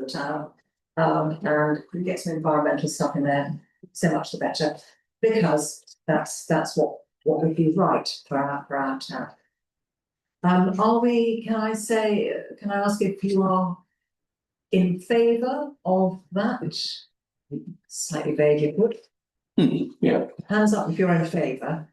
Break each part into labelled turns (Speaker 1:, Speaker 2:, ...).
Speaker 1: the town. Um, and we get some environmental stuff in there, so much the better, because that's, that's what, what would be right for our, for our town. Um, are we, can I say, can I ask if you are in favour of that, which slightly vague input?
Speaker 2: yeah.
Speaker 1: Hands up if you're in favour.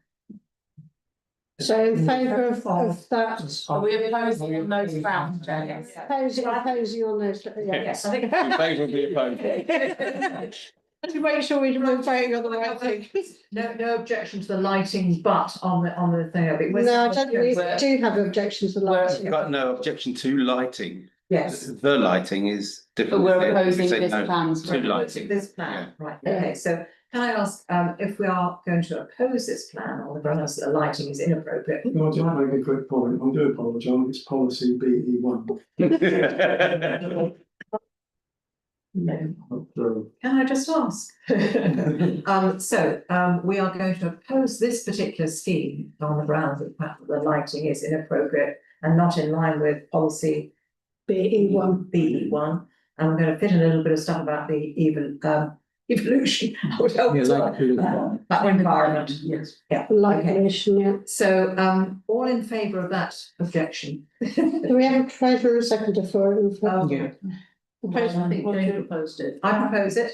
Speaker 3: So
Speaker 1: Mm.
Speaker 3: in favour of, of that.
Speaker 4: Are we opposed
Speaker 2: Are we
Speaker 4: on those
Speaker 2: opposed?
Speaker 4: grounds, Jane?
Speaker 3: Posing, posing on those, yeah.
Speaker 1: Yes, I think.
Speaker 2: In favour of the opposed.
Speaker 3: To make sure we're voting on the right thing.
Speaker 1: No, no objection to the lighting, but on the, on the thing of it. was-
Speaker 3: No, I don't, we do have objections to lighting.
Speaker 5: Got no objection to lighting.
Speaker 1: Yes.
Speaker 5: The lighting is
Speaker 4: But
Speaker 5: different.
Speaker 4: we're
Speaker 5: If
Speaker 4: opposing
Speaker 5: they
Speaker 4: this
Speaker 5: no
Speaker 4: plans.
Speaker 5: To lighting.
Speaker 1: This plan, right, okay, so can I ask, um, if we are going to oppose this plan on the grounds that the lighting is inappropriate?
Speaker 6: No, I just make a quick point. I do apologise. It's policy B E one.
Speaker 1: No. Can I just ask? Um, so, um, we are going to oppose this particular scheme on the grounds that perhaps the lighting is inappropriate and not in line with policy
Speaker 3: BE E one.
Speaker 1: BE E one. And we're gonna fit in a little bit of stuff about the even, um, evolution, I would hope, that environment.
Speaker 4: Yes.
Speaker 3: Light
Speaker 1: Okay.
Speaker 3: pollution, yeah.
Speaker 1: So, um, all in favour of that objection?
Speaker 3: Do we have a favour and seconder for it?
Speaker 1: Um,
Speaker 4: Opposed, I think Jane proposed it.
Speaker 1: I propose it.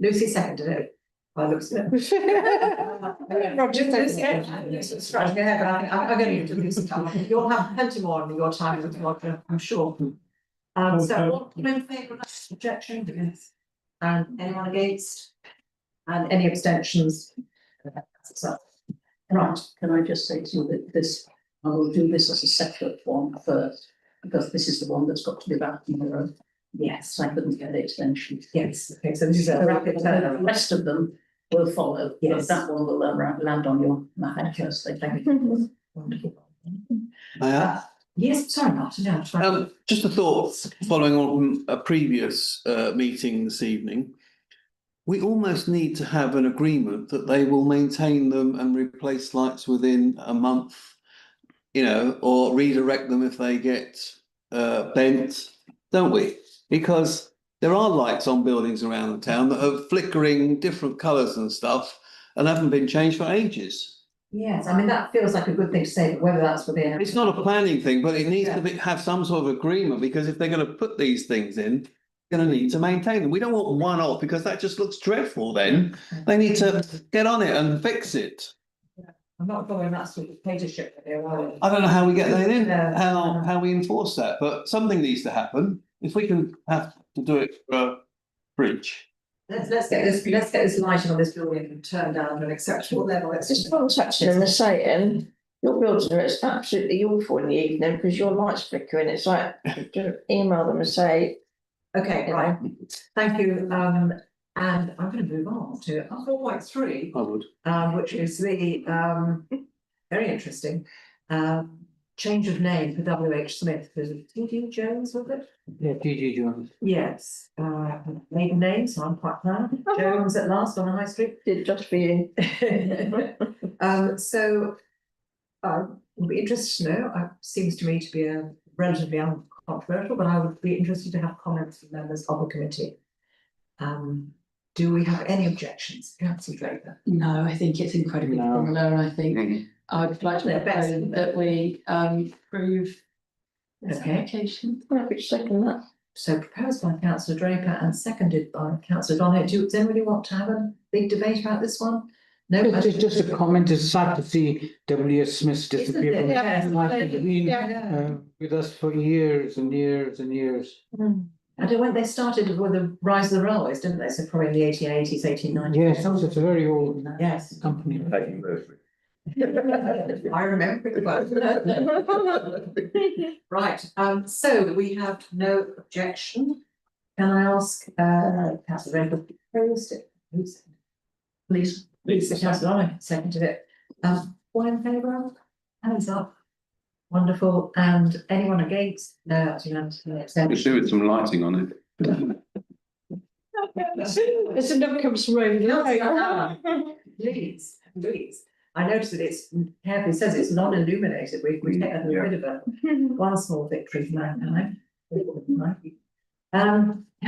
Speaker 1: Lucy seconded it. I looked at it.
Speaker 3: Roger,
Speaker 1: Lucy-
Speaker 3: seconded it.
Speaker 1: yeah, Lucy's scratching her head, but I think I'm, I'm going to leave it to Lucy. come on. You'll have plenty more in your time with Roger, I'm sure. Um, so all in favour of that objection? Yes. And anyone against? And any abstentions? So, Right,
Speaker 7: Can I just say to you that this, I will do this as a separate one first, because this is the one that's got to be back in the road. Yes, I couldn't get the extension.
Speaker 1: yes, okay, so this is a
Speaker 7: So
Speaker 1: rapid
Speaker 7: The
Speaker 1: turnaround.
Speaker 7: rest of them will follow,
Speaker 1: Yes.
Speaker 7: but that one will land land on your map firstly. Thank you.
Speaker 1: Wonderful.
Speaker 8: Uh,
Speaker 1: Yes, sorry, Martin, yeah, I'm trying.
Speaker 8: um, just a thought, following on from a previous uh meeting this evening. We almost need to have an agreement that they will maintain them and replace lights within a month. You know, or redirect them if they get uh bent, don't we? Because there are lights on buildings around the town that are flickering different colours and stuff and haven't been changed for ages.
Speaker 1: Yes, I mean, that feels like a good thing to say, but whether that's within.
Speaker 8: It's not a planning thing, but it needs to be, have some sort of agreement, because if they're gonna put these things in, they're gonna need to maintain them. We don't want one off, because that just looks dreadful then. They need to get on it and fix it.
Speaker 1: I'm not following that sort of dictatorship that they're on.
Speaker 8: I don't know how we get that in,
Speaker 1: Yeah.
Speaker 8: how, how we enforce that, but something needs to happen. If we can have to do it for a bridge.
Speaker 1: Let's, let's get this, let's get this lighting on this building turned down to an acceptable level, it's
Speaker 9: Just
Speaker 1: just.
Speaker 9: contacting them and saying, your building is absolutely awful in the evening because your lights flickering. It's like, just email them and say,
Speaker 1: Okay, right, thank you, um, and I'm gonna move on to four point three,
Speaker 8: I would.
Speaker 1: um, which is the, um, very interesting. Um, change of name for W H Smith, was it T D Jones, was it?
Speaker 2: Yeah, GG Jones.
Speaker 1: Yes, uh, maiden name, so I'm quite proud, Jones at last on the high street.
Speaker 9: did just for you.
Speaker 1: Um, so. I would be interested to know, it seems to me to be a relatively uncontroversial, but I would be interested to have comments from members of the committee. Um, do we have any objections, councillor Draper?
Speaker 4: No, I think it's incredibly
Speaker 2: No.
Speaker 4: similar, and I think I'd like to
Speaker 1: They're best,
Speaker 4: propose
Speaker 1: aren't they?
Speaker 4: that we um approve this
Speaker 1: Okay.
Speaker 4: application.
Speaker 9: Happy to second that.
Speaker 1: So proposed by councillor Draper and seconded by councillor Donahue, do, does anybody want to have a big debate about this one? No, I-
Speaker 2: It's just a comment, it's sad to see W S Smith disappear
Speaker 1: Isn't
Speaker 2: from
Speaker 1: it?
Speaker 2: the
Speaker 1: Yeah.
Speaker 2: life of being,
Speaker 3: Yeah.
Speaker 2: uh, with us for years and years and years.
Speaker 1: I don't, when they started with the rise of the railways, didn't they, so probably in the eighteen eighties, eighteen nineties.
Speaker 2: Yes, that was a very old
Speaker 1: Yes.
Speaker 2: company.
Speaker 5: Taking those.
Speaker 1: I remember it well. Right, um, so we have no objection. Can I ask, uh, councillor Rainbow, proposed it? Who's-
Speaker 7: Please.
Speaker 1: Lisa Councillor, seconded it. Um, all in favour? Hands up. Wonderful. And anyone against? No, that's unanimous. No
Speaker 5: We should
Speaker 1: abstention.
Speaker 5: do with some lighting on it.
Speaker 3: It's an upcoming room.
Speaker 1: Councillor Allen, Please, please. I noticed that it's, carefully says it's non-illuminated. We, we take that as a bit of a, one small victory for mankind. Um,